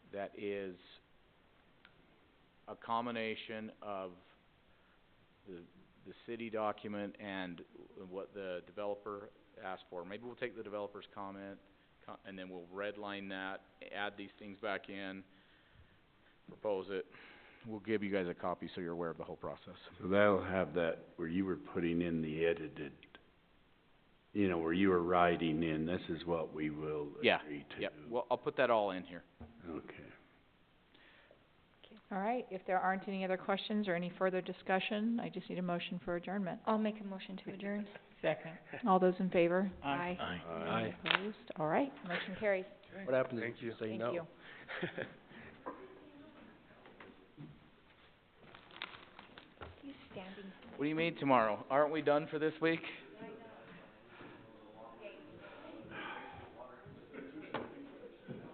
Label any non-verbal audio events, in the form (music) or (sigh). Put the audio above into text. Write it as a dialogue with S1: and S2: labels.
S1: that is a combination of the, the city document and what the developer asked for. Maybe we'll take the developer's comment, co- and then we'll redline that, add these things back in, propose it. We'll give you guys a copy so you're aware of the whole process.
S2: So that'll have that, where you were putting in the edited, you know, where you were writing in, this is what we will
S1: Yeah,
S2: agree to.
S1: Yep, well, I'll put that all in here.
S2: Okay.
S3: All right, if there aren't any other questions or any further discussion, I just need a motion for adjournment.
S4: I'll make a motion to adjourn.
S5: Second.
S3: All those in favor?
S4: Aye.
S2: Aye.
S3: Opposed? All right, motion carries.
S6: What happens
S5: Thank
S6: if you
S5: you.
S6: say
S3: Thank
S6: no? (laughs)
S3: you.
S4: He's standing.
S1: What do you mean tomorrow? Aren't we done for this week?